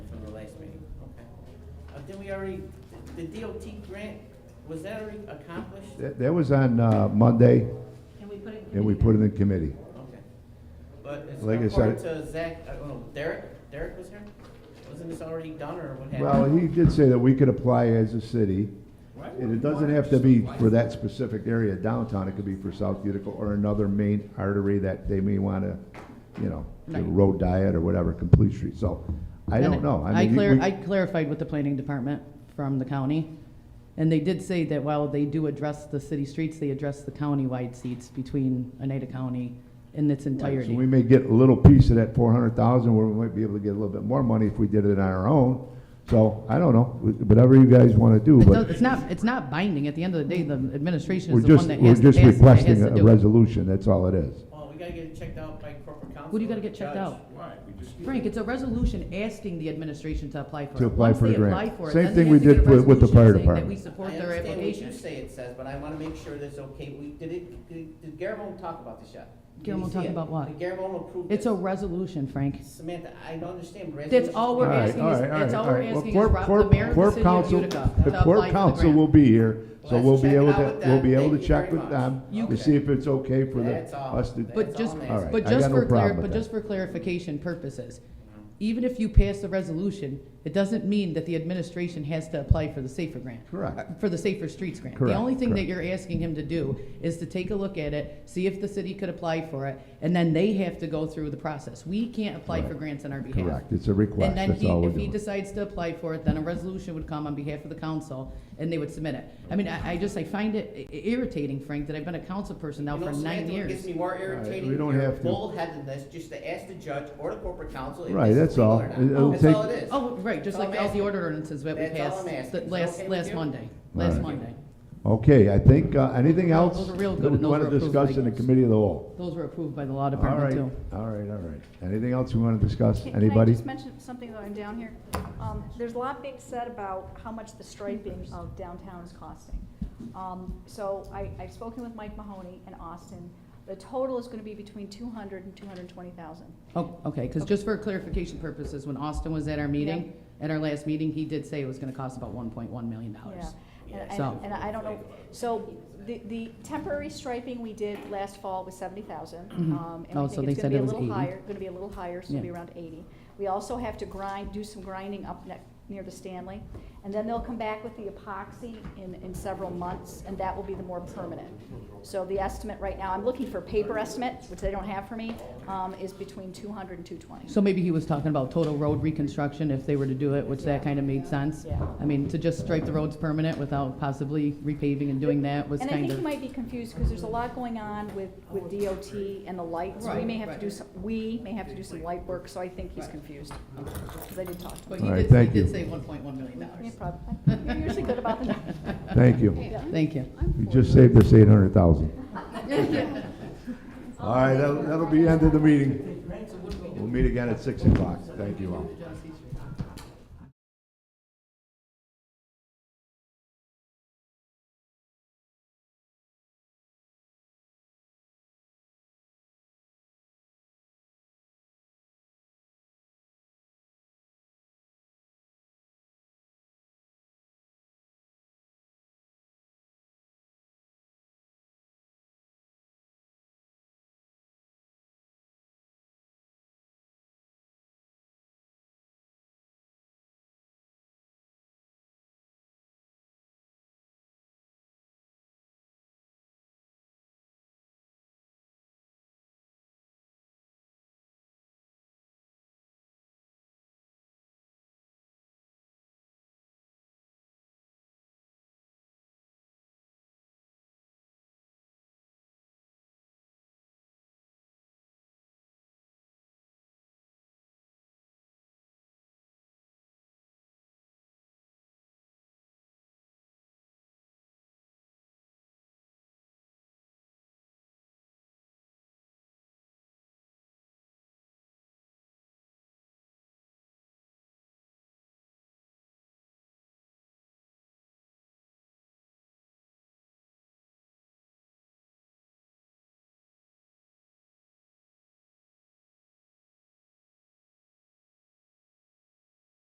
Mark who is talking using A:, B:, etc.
A: did Uh, we already, the DOT grant, was that already accomplished?
B: That that was on uh, Monday,
C: And we put it. in
B: and we
C: committee
B: put it
C: now.
B: in committee.
A: Okay. But it's
B: Like I said-
A: according to Zach, I don't know, Derek, Derek was here? Wasn't this already done or what happened?
B: Well, he did say that we could apply as a city,
D: Why would
B: and
D: we
B: it doesn't
D: want
B: have to be
D: something
B: for
D: like
B: that specific area downtown, it could be for South Utica or another main artery that they may want to, you know, do a
E: Right.
B: road diet or whatever, complete street, so, I don't
E: And
B: know.
E: I
B: mean,
E: clar-
B: we-
E: I clarified with the planning department from the county, and they did say that while they do address the city streets, they address the countywide seats between Oneida County in its
B: Right, So we
E: entirety.
B: may get a little piece of that four hundred thousand, where we might be able to get a little bit more money if we did it on our own. So, I don't know, whatever you guys wanna do,
E: It
B: but
E: does- It's not, it's not binding. At the end of the day, the administration
B: we're
E: is the
B: just,
E: one that
B: we're
E: has to
B: just
E: pass, it, that has
B: requesting
E: to
B: a
E: do it.
B: resolution, that's all it is.
A: Well, we gotta get it checked out by corporate counsel.
E: What do you gotta
A: and
E: get checked
A: judge.
E: out?
D: Why? We just. need
E: Frank, it's a resolution asking the administration to apply for it.
B: To apply
E: Once
B: for the
E: they
B: grant.
E: apply for it,
B: Same
E: then they
B: thing
E: have
B: we
E: to
B: did
E: get a
B: with- with the
E: resolution
B: fire
E: saying
B: department.
E: That we
A: I
E: support their
A: understand what you
E: application.
A: say it says, but I wanna make sure that's okay. We, did it, did did Garabone talk about this yet? Did he
E: Garabone
A: see
E: talk
A: it?
E: about what?
A: Did Garabone approve this?
E: It's a resolution, Frank.
A: Samantha, I don't understand.
E: That's all we're
B: All right,
E: asking
B: all
E: is,
B: right, all
E: that's
B: right,
E: all
B: all
E: we're
B: right. Well,
E: asking is
B: Corp-
E: Rob, the
B: Corp-
E: mayor of the
B: Corp
E: city of
B: Council-
E: Utica
B: The
E: to
B: Corp
E: apply for the
B: Council will
E: grant.
B: be here, so
A: Let's
B: we'll be
A: check it
B: able
A: out
B: to,
A: with
B: we'll
A: them.
B: be able
A: Thank
B: to
A: you
B: check
A: very
B: with
A: much.
B: them,
A: You-
B: to see if it's okay for the,
A: That's all.
B: us to.
E: But
A: That's
E: just,
A: all I'm
B: asking.
E: but
B: All right, I
E: just
B: got no
E: for clar-
B: problem with
E: but
B: that.
E: just for clarification purposes, even if you pass the resolution, it doesn't mean that the administration has to apply for the safer grant.
B: Correct.
E: For the Safer Streets Grant. The
B: Correct,
E: only thing that
B: correct.
E: you're asking him to do is to take a look at it, see if the city could apply for it, and then they have to go through the process. We can't apply for
B: Correct.
E: grants on our behalf.
B: Correct, it's a request,
E: And then
B: that's
E: he,
B: all we're
E: if he
B: doing.
E: decides to apply for it, then a resolution would come on behalf of the council, and they would submit it. I mean, I, I just, I find it i- irritating, Frank, that I've been a council person now
A: You know,
E: for nine
A: Samantha, what Gets
E: years.
A: me more
B: right,
A: irritated.
B: we don't
A: than your
B: have to.
A: Bullheadedness, just to ask the judge or the corporate counsel if
B: Right,
A: this is
B: that's
A: legal
B: all.
A: or not.
B: It- it'll
A: That's
B: take-
A: all it is.
E: Oh, right,
A: That's
E: just like
A: all I'm
E: all the
A: asking.
E: order ordinances that we
A: That's all
E: passed,
A: I'm asking.
E: the
A: Is it
E: last,
A: okay with
E: last
A: you?
E: Monday,
B: All
E: last
B: right.
E: Monday.
B: Okay, I think, uh, anything else?
E: Those are real
B: that
E: good,
B: we
E: and those
B: wanna
E: were approved
B: discuss
E: by
B: in the
E: you.
B: committee of the whole?
E: Those were approved by the law
B: All
E: department
B: right,
E: too.
B: all right, all right. Anything else you wanna discuss,
F: Can- Can I
B: anybody?
F: just mention something though, I'm down here? Um, There's a lot being said about how much the striping of downtown is costing. Um, So I, I've spoken with Mike Mahoney in Austin. The total is gonna be between two hundred and two hundred and twenty thousand.
E: Oh, okay, because just for clarification purposes, when Austin was at our meeting, at our last meeting, he did say it was gonna cost about one point one million
F: Yeah,
E: dollars.
F: And-
E: So-
F: and, and I don't know, so the, the temporary striping we did last fall was seventy thousand. Um, and
E: Oh,
F: I
E: so
F: think
E: they
F: it's
E: said
F: gonna be
E: it
F: a
E: was
F: little
E: 80.
F: higher, gonna be a little higher, so it'll be
E: Yeah.
F: around eighty. We also have to grind, do some grinding up ne- near the Stanley. And then they'll come back with the epoxy in, in several months, and that will be the more permanent. So the estimate right now, I'm looking for paper estimates, which they don't have for me, um, is between two hundred and two twenty.
E: So maybe he was talking about total road reconstruction if they were to do it, which that kind of made sense.
F: Yeah.
E: I mean, to just stripe the roads permanent without possibly repaving and doing that was
F: And I
E: kind
F: think you
E: of.
F: might be confused, because there's a lot going on with, with DOT and the lights. We
E: Right,
F: may have to do
E: right.
F: some, we may have to do some light work, so I think he's confused, because I did talk to him.
E: But he
B: All right,
E: did,
B: thank
E: he
B: you.
E: did say one point one million
F: Yeah,
E: dollars.
F: probably. You're usually good about the,
B: Thank you.
F: yeah.
E: Thank you.
B: We just saved us eight hundred thousand. All right, that'll, that'll be the end of the meeting. We'll meet again at six o'clock. Thank you all.